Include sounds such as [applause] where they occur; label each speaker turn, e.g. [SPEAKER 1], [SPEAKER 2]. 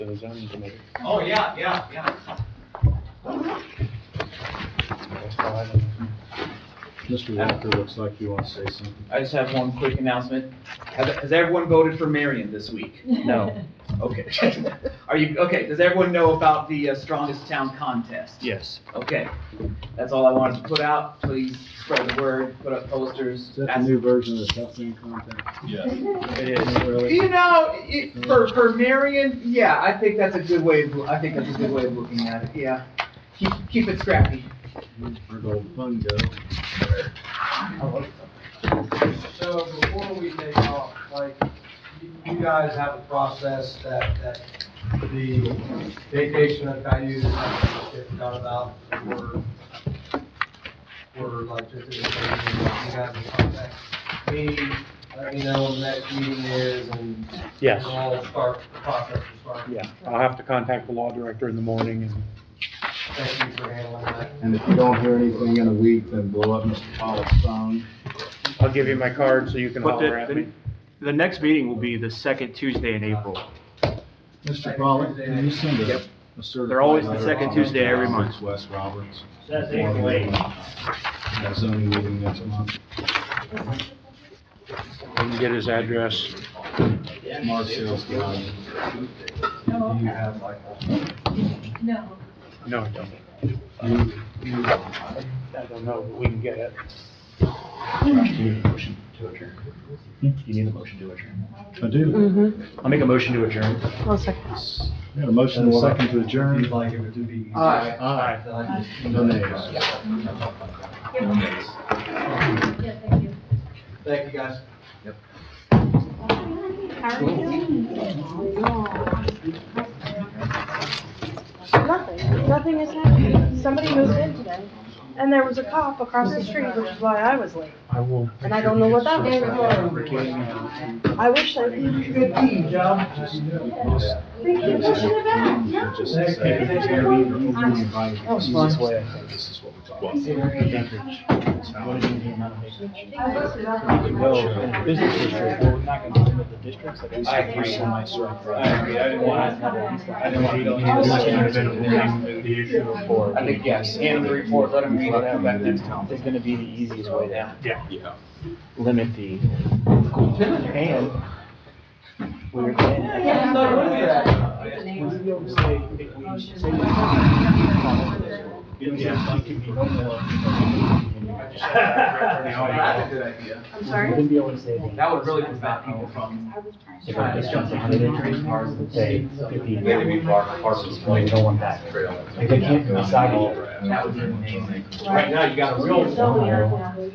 [SPEAKER 1] the zoning committee.
[SPEAKER 2] Oh, yeah, yeah, yeah.
[SPEAKER 1] That's all I know.
[SPEAKER 3] Mr. Walker looks like you want to say something.
[SPEAKER 2] I just have one quick announcement. Has, has everyone voted for Marion this week?
[SPEAKER 1] No.
[SPEAKER 2] [laughs] Okay. Are you, okay, does everyone know about the uh, Strongest Town Contest?
[SPEAKER 1] Yes.
[SPEAKER 2] Okay, that's all I wanted to put out. Please spread the word, put up posters.
[SPEAKER 3] Is that
[SPEAKER 2] ask-
[SPEAKER 3] the new version of the Southland Compact?
[SPEAKER 1] It is.
[SPEAKER 2] You know, it, for, for Marion, yeah, I think that's a good way, of- I think that's a good way of looking at it, yeah. Keep, keep it scrappy.
[SPEAKER 3] Where'd all the fun go?
[SPEAKER 4] So before we take off, like, you- you guys have a process that, that the vacation of Cayuse has to get done about for, for like just in the same, you guys will contact me, let me know when the next meeting is and
[SPEAKER 1] Yes.
[SPEAKER 4] we'll all start, the process will start.
[SPEAKER 1] Yeah, I'll have to contact the law director in the morning and
[SPEAKER 4] Thank you for handling that.
[SPEAKER 3] And if you don't hear anything in a week, then blow up Mr. Pollock's phone.
[SPEAKER 1] I'll give you my card so you can
[SPEAKER 5] But
[SPEAKER 1] holler at
[SPEAKER 5] the,
[SPEAKER 1] me.
[SPEAKER 5] the, the next meeting will be the second Tuesday in April.
[SPEAKER 3] Mr. Pollock, can you send a a certified?
[SPEAKER 5] They're always the
[SPEAKER 3] letter
[SPEAKER 5] second
[SPEAKER 3] of comment
[SPEAKER 5] Tuesday every
[SPEAKER 3] to
[SPEAKER 5] month.
[SPEAKER 3] Wes Roberts.
[SPEAKER 1] That's
[SPEAKER 3] before
[SPEAKER 1] April
[SPEAKER 3] the,
[SPEAKER 1] 8th.
[SPEAKER 3] uh, that zoning meeting next month.
[SPEAKER 1] I can get his address.
[SPEAKER 3] Mark Sales Drive.
[SPEAKER 6] No,
[SPEAKER 3] Do you have like?
[SPEAKER 6] no.
[SPEAKER 1] No, I don't.
[SPEAKER 3] You, you,
[SPEAKER 1] I don't know, but we can get it.
[SPEAKER 7] Motion to adjourn. You need a motion to adjourn.
[SPEAKER 3] I do.
[SPEAKER 8] Mm-hmm.
[SPEAKER 7] I'll make a motion to adjourn.
[SPEAKER 8] I'll second.
[SPEAKER 3] We had a motion and a second to adjourn.
[SPEAKER 4] You'd like it to be.
[SPEAKER 2] Aye.
[SPEAKER 3] Aye.
[SPEAKER 4] Then I just-
[SPEAKER 3] No nays.
[SPEAKER 6] Yeah, thank you.
[SPEAKER 4] Thank you, guys.
[SPEAKER 8] How are you? Nothing, nothing is happening. Somebody moved in today, and there was a cop across the street, which is why I was late.
[SPEAKER 1] I will.
[SPEAKER 8] And I don't know what that I wish I
[SPEAKER 4] You did a good deed, John.
[SPEAKER 3] Just say, "Hey, you're leaving, you're being invited." Easiest way I think this is what we're talking
[SPEAKER 1] No, business district, we're not gonna limit the districts. like
[SPEAKER 2] I agree.
[SPEAKER 1] I said.
[SPEAKER 2] I agree, I didn't want to, I didn't want to.
[SPEAKER 1] The issue of four.
[SPEAKER 2] I think, yes, hand them the report, let them read it, come back next time.
[SPEAKER 1] It's gonna be the easiest way to
[SPEAKER 5] Yeah.
[SPEAKER 1] limit the, and we're.
[SPEAKER 4] Yeah, no, look at that.
[SPEAKER 2] That's a good idea.
[SPEAKER 8] I'm sorry?
[SPEAKER 1] Wouldn't be able to say anything.
[SPEAKER 2] That would really prevent people from
[SPEAKER 1] If I just jump a hundred entries cars and say fifty.
[SPEAKER 7] We have to be part, part of this
[SPEAKER 1] Like,
[SPEAKER 7] point.
[SPEAKER 1] no one back. If they can't decide.
[SPEAKER 7] That would be amazing.
[SPEAKER 2] Right now, you got a real.
[SPEAKER 8] So weird.